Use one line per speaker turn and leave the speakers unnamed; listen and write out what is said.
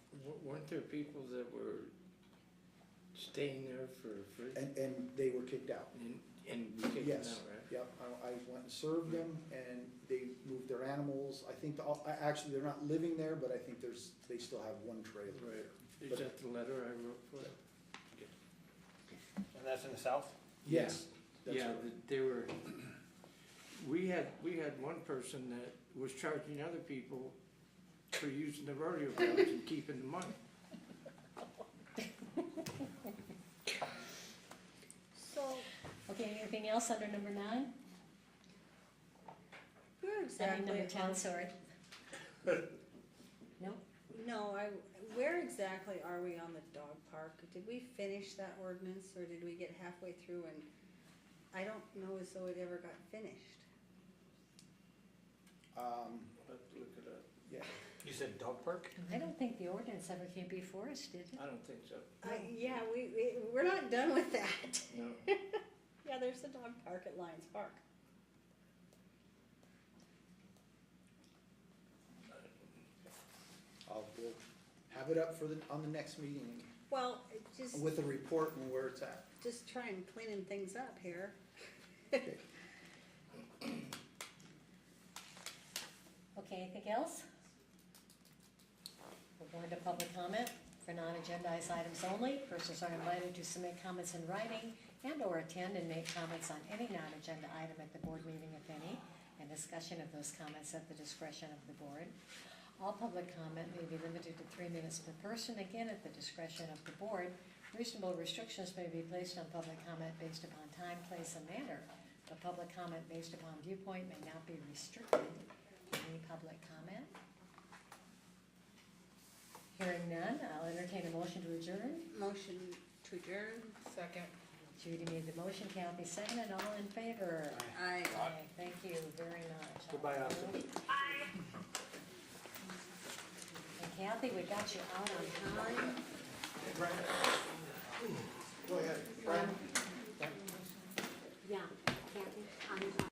W- Weren't there people that were staying there for, for,
and, and they were kicked out.
and, and we kicked them out,
Yes,
right?
yep, I, I went and served them, and they moved their animals, I think, the- I- actually, they're not living there, but I think there's, they still have one trailer
Right.
there.
Is
But-
that the letter I wrote for? them?
And that's in the south?
Yes, that's
Yeah,
right.
that they were, we had, we had one person that was charging other people for using the rodeo grounds and keeping the money.
So, okay, anything else under number nine?
Where
I mean,
exactly?
number ten, sorry. No,
No, I, where exactly are we on the dog park? Did we finish that ordinance or did we get halfway through and I don't know as though it ever got finished.
Um,
Let's look it up.
yeah,
You said dog park?
I don't think the ordinance ever came before us, did it?
I don't think so.
I, Uh, yeah, we, we, we're not done with that.
No.
Yeah, there's the dog park at Lions Park.
I'll, we'll have it up for the, on the next meeting
Well, it just,
with a report and where it's at.
just trying cleaning things up here.
Okay, anything else? We're going to public comment for non-agendized items only. Persons are invited to submit comments in writing and/or attend and make comments on any non-agenda item at the board meeting, if any, and discussion of those comments at the discretion of the board. All public comment may be limited to three minutes per person, again, at the discretion of the board. Reasonable restrictions may be placed on public comment based upon time, place, and manner, but public comment based upon viewpoint may not be restricted. Any public comment? Hearing none, I'll entertain a motion to adjourn.
Motion to adjourn.
Second.
Judy made the motion, Kathy seconded, all in favor?
I.
Aye, Thank you very much.
Goodbye, Austin.
Bye. And Kathy, we got you out on time.